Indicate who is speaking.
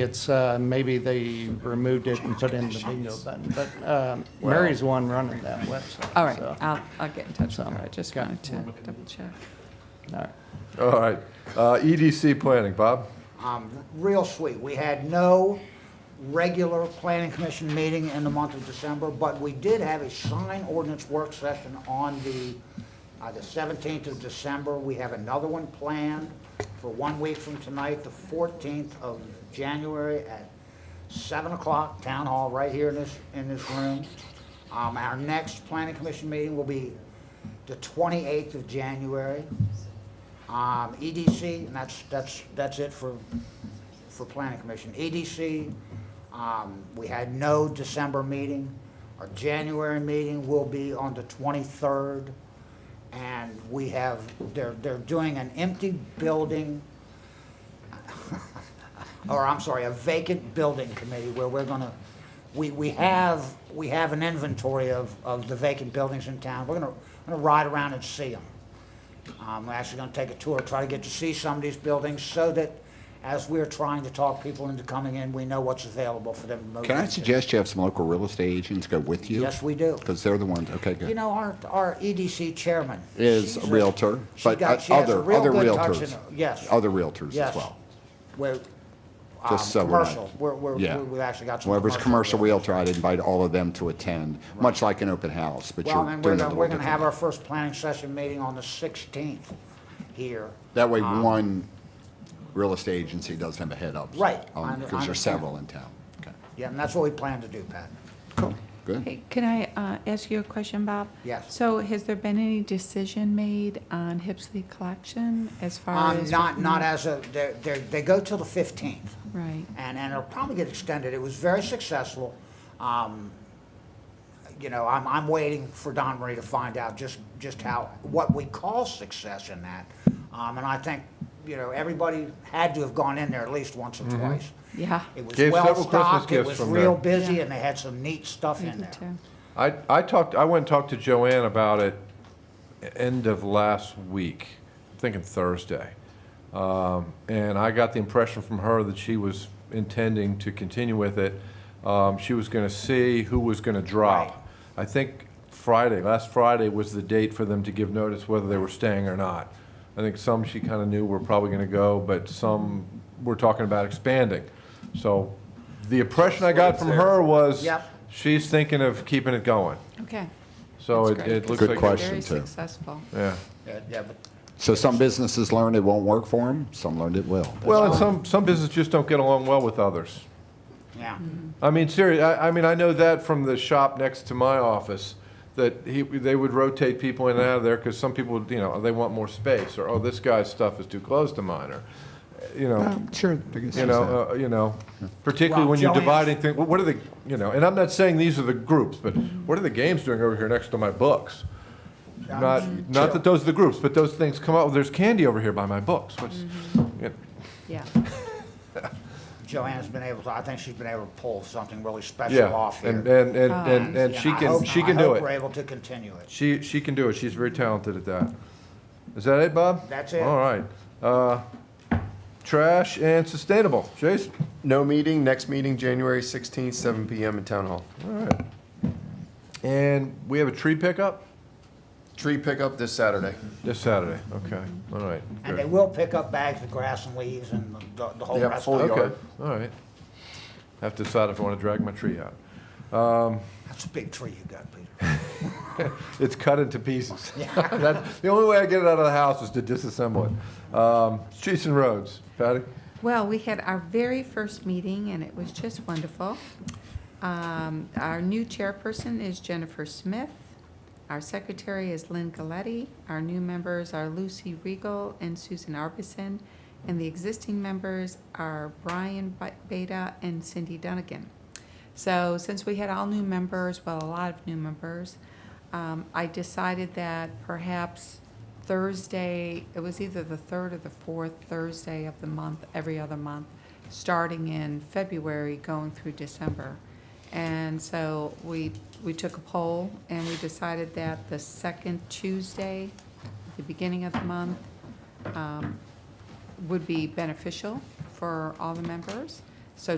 Speaker 1: It's, uh, maybe they removed it and put in the bingo button, but um, Mary's the one running that website.
Speaker 2: All right,
Speaker 1: so,
Speaker 2: I'll, I'll get in touch with her. I just
Speaker 1: Okay.
Speaker 2: wanted to double check.
Speaker 1: all right.
Speaker 3: All right. Uh, EDC planning, Bob?
Speaker 4: um, real sweet. We had no regular planning commission meeting in the month of December, but we did have a sign ordinance work session on the, uh, the seventeenth of December. We have another one planned for one week from tonight, the fourteenth of January at seven o'clock, town hall, right here in this, in this room. Um, our next planning commission meeting will be the twenty-eighth of January um, EDC, and that's, that's, that's it for, for planning commission. EDC, um, we had no December meeting. Our January meeting will be on the twenty-third. And we have, they're, they're doing an empty building, or I'm sorry, a vacant building committee where we're gonna, we, we have, we have an inventory of, of the vacant buildings in town. We're gonna, gonna ride around and see them. I'm actually gonna take a tour, try to get to see some of these buildings so that as we're trying to talk people into coming in, we know what's available for them to move
Speaker 5: Can I
Speaker 4: into.
Speaker 5: suggest you have some local real estate agents go with you?
Speaker 4: Yes, we do.
Speaker 5: Because they're the ones, okay,
Speaker 4: You
Speaker 5: good.
Speaker 4: know, our, our EDC chairman.
Speaker 5: Is
Speaker 4: she's
Speaker 5: a realtor,
Speaker 4: she
Speaker 5: but
Speaker 4: got-
Speaker 5: uh,
Speaker 4: she has a
Speaker 5: other,
Speaker 4: real
Speaker 5: other
Speaker 4: good touch
Speaker 5: realtors.
Speaker 4: in her- Yes.
Speaker 5: Other realtors
Speaker 4: yes.
Speaker 5: as well.
Speaker 4: We're, um,
Speaker 5: Just so we're not-
Speaker 4: commercial, we're, we're,
Speaker 5: Yeah.
Speaker 4: we've actually got some.
Speaker 5: Whoever's a commercial
Speaker 4: realtors.
Speaker 5: realtor, I'd invite all of them to attend, much like an open house, but you're
Speaker 4: Well,
Speaker 5: doing
Speaker 4: and
Speaker 5: it a
Speaker 4: we're
Speaker 5: little
Speaker 4: gonna, we're gonna have
Speaker 5: differently.
Speaker 4: our first planning session meeting on the sixteenth here.
Speaker 5: That way,
Speaker 4: um,
Speaker 5: one real estate agency doesn't have a head up.
Speaker 4: Right, I under- I
Speaker 5: Because there's
Speaker 4: understand.
Speaker 5: several in town. Okay,
Speaker 4: Yeah, and that's what we plan to do, Pat.
Speaker 5: cool, good.
Speaker 2: Hey, can I uh, ask you a question, Bob?
Speaker 4: Yes.
Speaker 2: So has there been any decision made on Hipsley collection as far
Speaker 4: Um,
Speaker 2: as?
Speaker 4: not, not as a, they're, they're, they go till the fifteenth.
Speaker 2: Right.
Speaker 4: and, and it'll probably get extended. It was very successful. Um, you know, I'm, I'm waiting for Don Marie to find out just, just how, what we call success in that. Um, and I think, you know, everybody had to have gone in there at least once or
Speaker 5: Mm-hmm.
Speaker 4: twice.
Speaker 2: Yeah.
Speaker 4: It was
Speaker 3: Gave
Speaker 4: well
Speaker 3: several Christmas
Speaker 4: stocked, it
Speaker 3: gifts
Speaker 4: was
Speaker 3: from
Speaker 4: real
Speaker 3: there.
Speaker 4: busy,
Speaker 2: Yeah.
Speaker 4: and they had some neat stuff in
Speaker 2: Me
Speaker 4: there.
Speaker 2: too.
Speaker 3: I, I talked, I went and talked to Joanne about it end of last week, I'm thinking Thursday. Um, and I got the impression from her that she was intending to continue with it. Um, she was gonna see who was gonna drop. I think Friday, last Friday was the date for them to give notice whether they were staying or not. I think some she kinda knew were probably gonna go, but some were talking about expanding. So the impression I got from her was
Speaker 4: Yep.
Speaker 3: she's thinking of keeping it going.
Speaker 2: Okay.
Speaker 3: So
Speaker 2: That's
Speaker 3: it,
Speaker 2: great.
Speaker 3: it looks
Speaker 5: Good
Speaker 3: like.
Speaker 5: question,
Speaker 2: Very
Speaker 5: too.
Speaker 2: successful.
Speaker 3: Yeah.
Speaker 4: Yeah, yeah, but
Speaker 5: So some businesses learned it won't work for them, some learned it will.
Speaker 3: Well, and some, some businesses just don't get along well with others.
Speaker 4: Yeah.
Speaker 2: Mm-hmm.
Speaker 3: I mean, seriously, I, I mean, I know that from the shop next to my office, that he, they would rotate people in and out of there because some people, would, you know, they want more space, or, oh, this guy's stuff is too close to mine, or, you know,
Speaker 5: Um, Sure. I guess
Speaker 3: you
Speaker 5: there's that.
Speaker 3: know, uh, you know, particularly
Speaker 4: Well,
Speaker 3: when you're
Speaker 4: Joanne's-
Speaker 3: dividing things, what are the, you know, and I'm not saying these are the groups, but what are the games doing over here next to my books? Not, not that those are the groups, but those things come up, there's candy over here by my books, what's,
Speaker 4: Mm-hmm.
Speaker 3: you know,
Speaker 2: Yeah.
Speaker 4: Joanne's been able to, I think she's been able to pull something really
Speaker 3: Yeah,
Speaker 4: special off here.
Speaker 3: and, and, and, and, and she
Speaker 4: Oh, I
Speaker 3: can,
Speaker 4: hope-
Speaker 3: she
Speaker 4: I
Speaker 3: can do
Speaker 4: hope we're
Speaker 3: it.
Speaker 4: able to continue it.
Speaker 3: She, she can do it. She's very talented at that. Is that it, Bob?
Speaker 4: That's it.
Speaker 3: All right. Uh, trash and sustainable. Jason?
Speaker 6: No meeting, next meeting, January 16th, 7 PM in Town Hall.
Speaker 3: All right. And we have a tree pickup
Speaker 6: Tree pickup this Saturday.
Speaker 3: this Saturday. Okay. All right.
Speaker 4: And they
Speaker 3: Good.
Speaker 4: will pick up bags of grass and leaves and the, the whole
Speaker 6: Yeah,
Speaker 4: rest
Speaker 6: full
Speaker 4: of it.
Speaker 6: yard.
Speaker 3: Okay. All right. Have to decide if I want to drag my tree out.
Speaker 4: That's a big tree you got, Peter.
Speaker 3: It's cut into pieces. That's, the only way I get it out of the house is to disassemble it. Um, streets and roads. Patty?
Speaker 2: Well, we had our very first meeting, and it was just wonderful. Um, Our new chairperson is Jennifer Smith. Our secretary is Lynn Galetti. Our new members are Lucy Regal and Susan Arbison. And the existing members are Brian Ba- Beta and Cindy Dunnigan. So since we had all new members, well, a lot of new members, um, I decided that perhaps Thursday, it was either the third or the fourth Thursday of the month, every other month, starting in February, going through December. And so we, we took a poll and we decided that the second Tuesday, the beginning of the month, um, would be beneficial for all the members.